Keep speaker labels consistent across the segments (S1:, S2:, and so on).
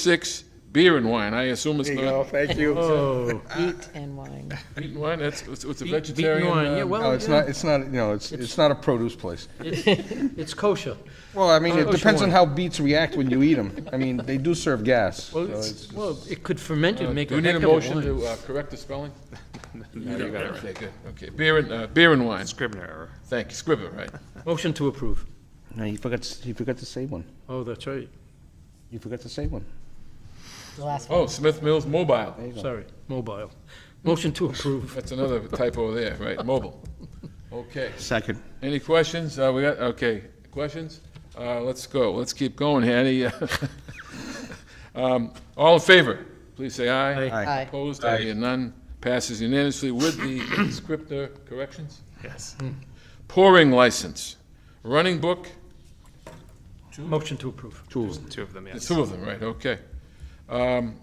S1: six, beer and wine. I assume it's
S2: There you go,
S1: not
S2: thank you. No,
S3: Oh,
S4: Meat and wine.
S1: meat and wine, that's, it's it's a
S3: beet- beet
S1: vegetarian.
S3: and wine,
S1: uh,
S3: yeah, well,
S2: it's
S3: yeah,
S2: not, it's not, you know, it's, it's not a produce place.
S3: it's kosher.
S2: Well, I mean, it
S3: Produce
S2: depends on
S3: wine.
S2: how beets react when you eat them. I mean, they do serve gas.
S3: Well,
S2: so
S3: it's-
S2: it's-
S3: well, it could ferment
S1: uh,
S3: and make
S1: Do
S3: a
S1: we
S3: heck
S1: need a
S3: of a
S1: motion
S3: wine.
S1: to uh, correct the spelling? No, you got it Okay, good, okay. Beer and, uh, beer and wine.
S5: Scribner error.
S1: Thank you, Scribner, right.
S3: Motion to approve.
S2: No, you forgot, to- you forgot to say one.
S3: Oh, that's right,
S2: You forgot to say one.
S4: The last one.
S1: Oh, Smith Mills Mobile.
S3: sorry, mobile. Motion to approve.
S1: That's another typo there, right, mobile. Okay.
S2: Second.
S1: Any questions? Uh, we got, okay, questions? Uh, let's go, let's keep going, Hattie. Um, all in favor, please say aye.
S3: Aye.
S4: Aye.
S1: Opposed, I hear none, passes unanimously with the scripter corrections.
S5: Yes.
S1: Pouring license, running book,
S3: Hmm. Motion to approve.
S5: Two of them,
S1: there's
S5: yes.
S1: two of them, right, okay. Um,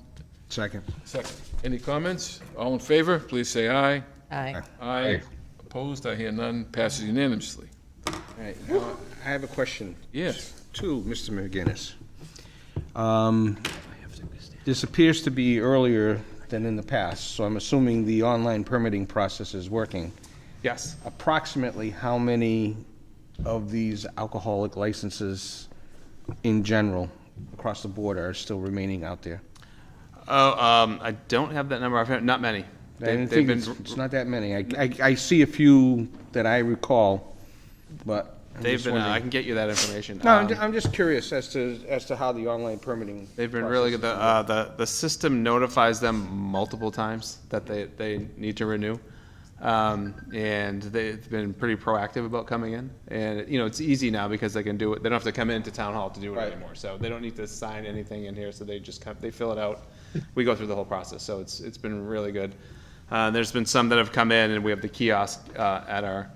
S2: Second.
S1: second, any comments? All in favor, please say aye.
S4: Aye.
S1: Aye. Opposed, I hear none, passes unanimously.
S2: All right, now, I have a question
S1: Yes.
S2: to Mr. McGinnis. Um, This appears to be earlier than in the past, so I'm assuming the online permitting process is working.
S5: Yes.
S2: Approximately how many of these alcoholic licenses in general, across the board, are still remaining out there?
S5: Oh, um, I don't have that number. I've had, not many.
S2: I
S5: They-
S2: didn't
S5: They've
S2: think
S5: been,
S2: it's, it's not that many. I, I, I see a few that I recall, but I'm
S5: they've
S2: just
S5: been, uh,
S2: wondering.
S5: I can get you that information.
S2: No, I'm,
S5: Um,
S2: ju- I'm just curious as to, as to how the online permitting.
S5: They've been really good. The,
S2: process-
S5: uh, the, the system notifies them multiple times that they, they need to renew. Um, and they've been pretty proactive about coming in. And, you know, it's easy now because they can do it. They don't have to come into town hall to do it
S2: Right.
S5: anymore. So they don't need to sign anything in here. So they just come, they fill it out. We go through the whole process. So it's, it's been really good. Uh, there's been some that have come in and we have the kiosk, uh, at our,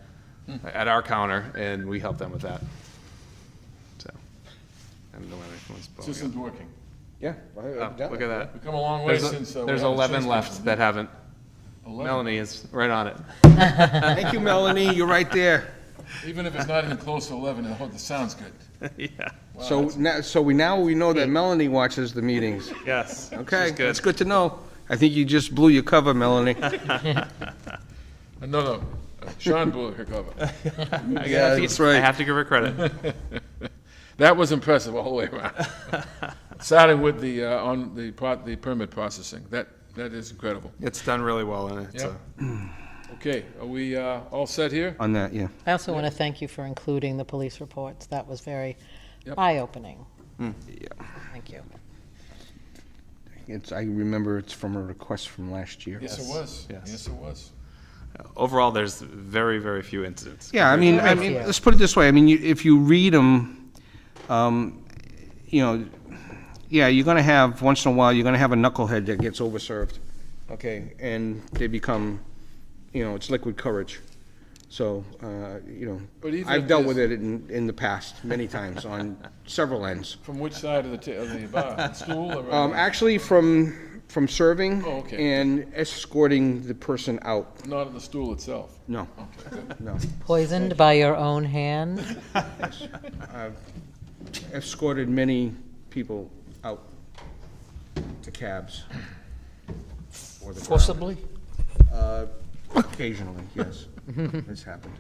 S5: at our counter and we help them with that. So. I don't know whether anyone's blowing up.
S1: System's working.
S2: Yeah. I- I've
S5: Oh,
S2: done
S5: Look
S2: it.
S5: at that.
S1: We've come a long way
S5: There's,
S1: since. uh, we
S5: there's
S1: had a
S5: 11
S1: chase
S5: left
S1: conference.
S5: that haven't.
S1: 11.
S5: Melanie is right on it.
S2: Thank you, Melanie, you're right there.
S1: Even if it's not even close to 11, I hope the sound's good.
S5: Yeah,
S2: So now, so we, now we know that Melanie watches the meetings.
S5: yes.
S2: Okay,
S5: She's good.
S2: that's good to know. I think you just blew your cover, Melanie.
S1: Uh, No, no, uh, Sean blew her cover.
S5: I
S2: Yeah,
S5: have to-
S2: that's right.
S5: I have to give her credit.
S1: That was impressive all the way around. Starting with the, uh, on the pro- the permit processing, that, that is incredible.
S5: It's done really well and it's uh,
S1: Yep.
S5: a
S1: Okay, are we uh, all set here?
S2: On that, yeah.
S4: I also want to thank you for including the police reports. That was very
S1: Yep.
S4: eye-opening.
S5: Hmm.
S4: Thank you.
S2: It's, I remember it's from a request from last year.
S1: Yes, it was.
S5: yes.
S1: Yes, it was.
S5: Overall, there's very, very few incidents.
S2: Yeah, I mean, I
S4: Very
S2: mean,
S4: few.
S2: let's put it this way. I mean, you, if you read them, um, you know, yeah, you're gonna have once in a while, you're gonna have a knucklehead that gets overserved, okay, and they become, you know, it's liquid courage. So, uh, you
S1: But
S2: know,
S1: even
S2: I've
S1: if
S2: dealt
S1: there's-
S2: with it in, in the past many times on several ends.
S1: From which side of the, ta- of the bar? School or?
S2: Um, actually, from from serving
S1: Oh, okay.
S2: and escorting the person out.
S1: Not on the stool itself.
S2: No,
S1: Okay, good.
S2: no,
S4: Poisoned by your own hand?
S2: escorted many people out to cabs. or the car.
S3: Forcibly?
S2: Uh, occasionally, yes, it's happened.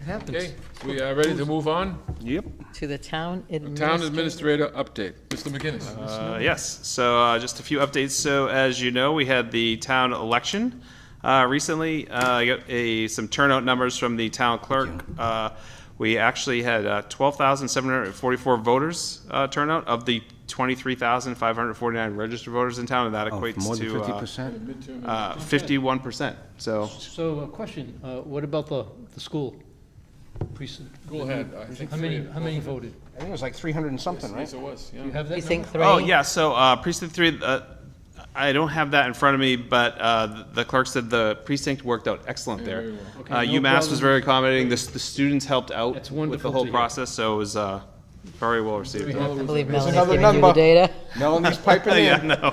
S3: It happens.
S1: Okay, we are ready to move on?
S2: Yep.
S4: To the town
S1: Town
S4: administrator?
S1: administrator update, Mr. McGinnis.
S5: Uh, yes. So uh, just a few updates. So as you know, we had the town election uh, recently. Uh, I got a, some turnout numbers from the town clerk. Uh, we actually had uh, 12,744 voters uh, turnout of the 23,549 registered voters in town, and that
S2: Oh,
S5: equates
S2: more than
S5: to
S2: fifty
S5: uh,
S2: percent?
S5: uh, 51%. So
S3: So a question, uh, what about the, the school precinct?
S1: Go ahead, I think
S3: How
S1: three.
S3: many, how many voted?
S2: I think it was like three hundred and something,
S1: Yes,
S2: right?
S1: it was, yeah.
S3: You have that
S4: Precinct
S3: number?
S4: three?
S5: Oh, yeah, so uh, precinct three, uh, I don't have that in front of me, but uh, the clerk said the precinct worked out excellent there. Uh,
S3: Mm-hmm. Okay, no
S5: UMass was
S3: problem.
S5: very accommodating, the s- the students helped out
S3: That's
S5: with the
S3: wonderful
S5: whole
S3: to hear.
S5: process, so it was uh, very well received.
S4: I believe
S2: There's
S4: Melanie's
S2: another
S4: giving you the
S2: number.
S4: data.
S2: Melanie's piping
S5: Yeah,
S2: in.
S5: no.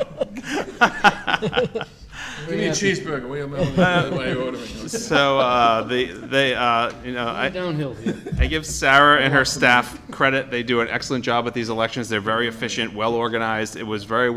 S1: Give me a cheeseburger, we, we're ordering.
S5: So uh, the, they, uh, you know, I,
S3: Downhill here.
S5: I give Sarah and her staff credit. They do an excellent job at these elections. They're very efficient, well organized. It was very